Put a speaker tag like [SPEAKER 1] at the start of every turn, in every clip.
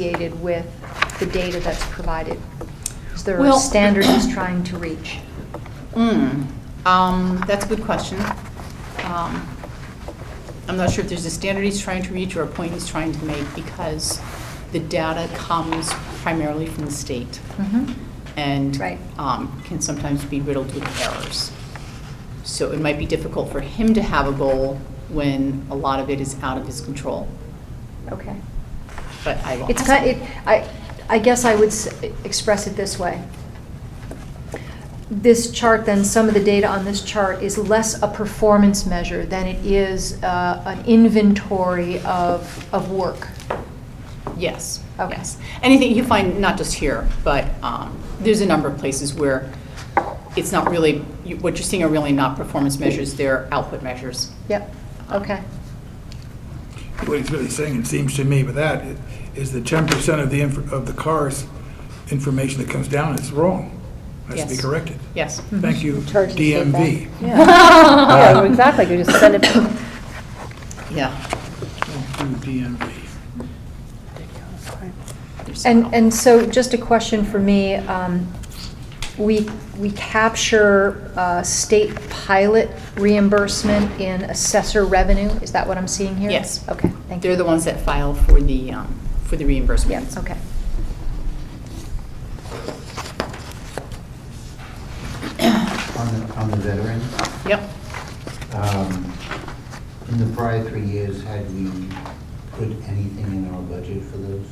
[SPEAKER 1] associated with the data that's provided? Is there a
[SPEAKER 2] Well-
[SPEAKER 1] standard he's trying to reach?
[SPEAKER 2] Mm, um, that's a good question. Um, I'm not sure if there's a standard he's trying to reach or a point he's trying to make because the data comes primarily from the state
[SPEAKER 3] Mm-hmm.
[SPEAKER 2] and
[SPEAKER 1] Right.
[SPEAKER 2] um, can sometimes be riddled with errors. So it might be difficult for him to have a goal when a lot of it is out of his control,
[SPEAKER 1] Okay.
[SPEAKER 2] but I will
[SPEAKER 1] It's
[SPEAKER 2] ask
[SPEAKER 1] kind,
[SPEAKER 2] him.
[SPEAKER 1] it, I, I guess I would s- express it this way. This chart, then, some of the data on this chart is less a performance measure than it is uh, an inventory of, of work.
[SPEAKER 2] Yes,
[SPEAKER 1] Okay.
[SPEAKER 2] yes. Anything you find, not just here, but um, there's a number of places where it's not really, you- what you're seeing are really not performance measures, they're output measures.
[SPEAKER 1] Yep, okay.
[SPEAKER 4] What he's really saying, it seems to me, with that, i- is that ten percent of the, inf- of the car's information that comes down is wrong. Has to be
[SPEAKER 2] Yes.
[SPEAKER 4] corrected.
[SPEAKER 3] Mm-hmm.
[SPEAKER 2] Yes.
[SPEAKER 4] Thank you,
[SPEAKER 3] Charge the state
[SPEAKER 4] DMV.
[SPEAKER 3] Yeah,
[SPEAKER 5] Um,
[SPEAKER 3] exactly, you just send it,
[SPEAKER 2] Yeah.
[SPEAKER 4] Thank you, DMV.
[SPEAKER 2] there's
[SPEAKER 1] And,
[SPEAKER 2] some.
[SPEAKER 1] and so just a question for me, um, we, we capture, uh, state pilot reimbursement in assessor revenue, is that what I'm seeing here?
[SPEAKER 2] Yes.
[SPEAKER 1] Okay, thank you.
[SPEAKER 2] They're the ones that file for the, um, for the
[SPEAKER 1] Yeah,
[SPEAKER 2] reimbursements.
[SPEAKER 1] okay.
[SPEAKER 5] On the, on the veterans,
[SPEAKER 2] Yep,
[SPEAKER 5] um, in the prior three years, had we put anything in our budget for those?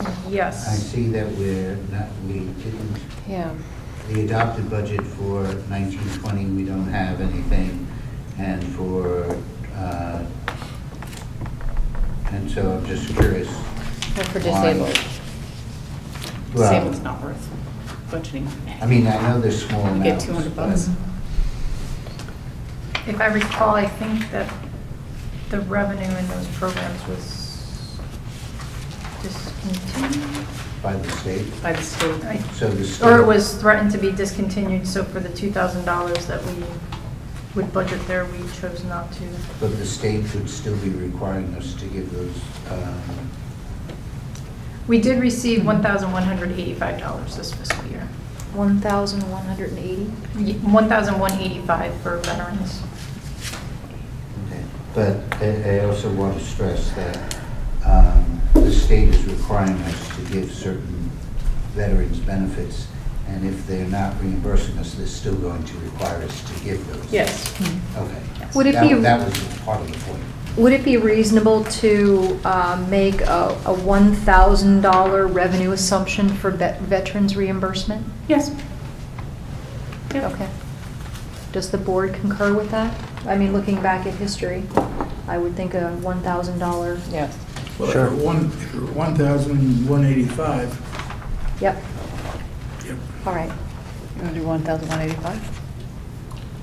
[SPEAKER 5] I
[SPEAKER 3] yes.
[SPEAKER 5] see that we're not, we didn't,
[SPEAKER 3] Yeah.
[SPEAKER 5] the adopted budget for nineteen twenty, we don't have anything, and for, uh, and so I'm just curious.
[SPEAKER 2] for
[SPEAKER 5] on-
[SPEAKER 2] disabled.
[SPEAKER 5] Well-
[SPEAKER 2] Disabled's not worth budgeting.
[SPEAKER 5] I mean, I know there's small
[SPEAKER 2] You get
[SPEAKER 5] amounts.
[SPEAKER 2] 200
[SPEAKER 5] but-
[SPEAKER 2] bucks.
[SPEAKER 1] Mm-hmm.
[SPEAKER 6] If I recall, I think that the revenue in those programs was discontinued
[SPEAKER 5] By the state,
[SPEAKER 2] By the state.
[SPEAKER 6] I-
[SPEAKER 5] so the state.
[SPEAKER 6] or it was threatened to be discontinued, so for the $2,000 that we would budget there, we chose not to.
[SPEAKER 5] But the state would still be requiring us to give those, um,
[SPEAKER 6] We did receive $1,185 this fiscal year.
[SPEAKER 1] One thousand one hundred and eighty?
[SPEAKER 6] Ye- $1,185 for veterans.
[SPEAKER 5] okay. but I I also want to stress that um, the state is requiring us to give certain veterans benefits, and if they're not reimbursing us, they're still going to require us to give those.
[SPEAKER 6] Yes.
[SPEAKER 5] Okay.
[SPEAKER 1] Would it
[SPEAKER 5] That-
[SPEAKER 1] be-
[SPEAKER 5] That was part of the point.
[SPEAKER 1] Would it be reasonable to, uh, make a, a one thousand dollar revenue assumption for vet, veterans reimbursement?
[SPEAKER 2] Yes. Yep.
[SPEAKER 1] Okay. Does the board concur with that? I mean, looking back at history, I would think a one thousand dollar.
[SPEAKER 2] Yes.
[SPEAKER 4] Well, if
[SPEAKER 3] Sure.
[SPEAKER 4] we're one, if we're one thousand one eighty-five,
[SPEAKER 1] Yep,
[SPEAKER 4] yep,
[SPEAKER 1] all right.
[SPEAKER 3] You want to do 1,185?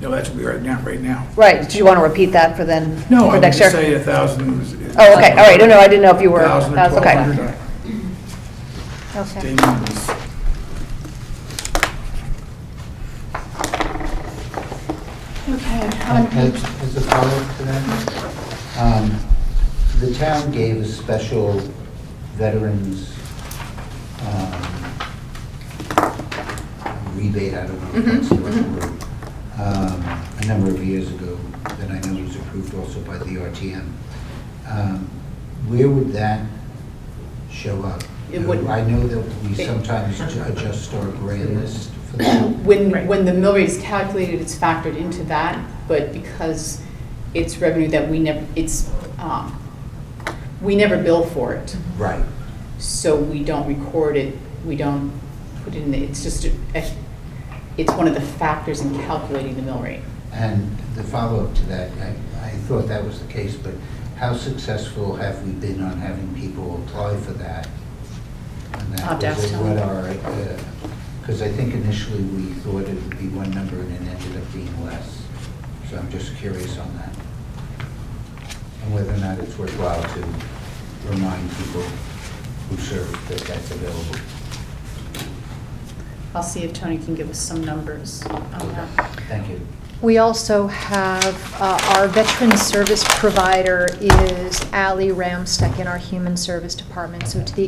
[SPEAKER 4] no, that's what we are now, right now.
[SPEAKER 3] Right, did you want to repeat that for then,
[SPEAKER 4] No,
[SPEAKER 3] for
[SPEAKER 4] I'm
[SPEAKER 3] next
[SPEAKER 4] just
[SPEAKER 3] year?
[SPEAKER 4] saying a thousand is.
[SPEAKER 3] Oh, okay, all right, no, no, I didn't know if you were,
[SPEAKER 4] Thousand or
[SPEAKER 3] that's
[SPEAKER 4] twelve
[SPEAKER 3] okay.
[SPEAKER 4] hundred.
[SPEAKER 1] Okay.
[SPEAKER 4] State numbers.
[SPEAKER 2] Um,
[SPEAKER 5] As as a follow-up to that, um, the town gave a special veterans um, rebate, I don't know if that's the right
[SPEAKER 2] Mm-hmm,
[SPEAKER 5] word, um, a number of years ago, that I know was approved also by the RTM. Um, Where would that show up?
[SPEAKER 2] It wouldn't.
[SPEAKER 5] I know that we sometimes adjust our grand list for that.
[SPEAKER 2] When,
[SPEAKER 6] Right.
[SPEAKER 2] when the mill rate is calculated, it's factored into that, but because it's revenue that we never, it's, um, we never bill for it,
[SPEAKER 5] Right,
[SPEAKER 2] so we don't record it, we don't put it in, the- it's just, a- it's one of the factors in calculating the mill rate.
[SPEAKER 5] And the follow-up to that, I, I thought that was the case, but how successful have we been on having people apply for that? And that
[SPEAKER 2] Opt out
[SPEAKER 5] was
[SPEAKER 2] still.
[SPEAKER 5] What are, because I think initially we thought it would be one number and it ended up being less. So I'm just curious on that. And whether or not it's worthwhile to remind people who serve that that's available.
[SPEAKER 2] I'll see if Tony can give us some numbers on that.
[SPEAKER 5] Thank you.
[SPEAKER 1] We also have, uh, our veteran service provider is Ally Ramstek in our Human Service Department. So to the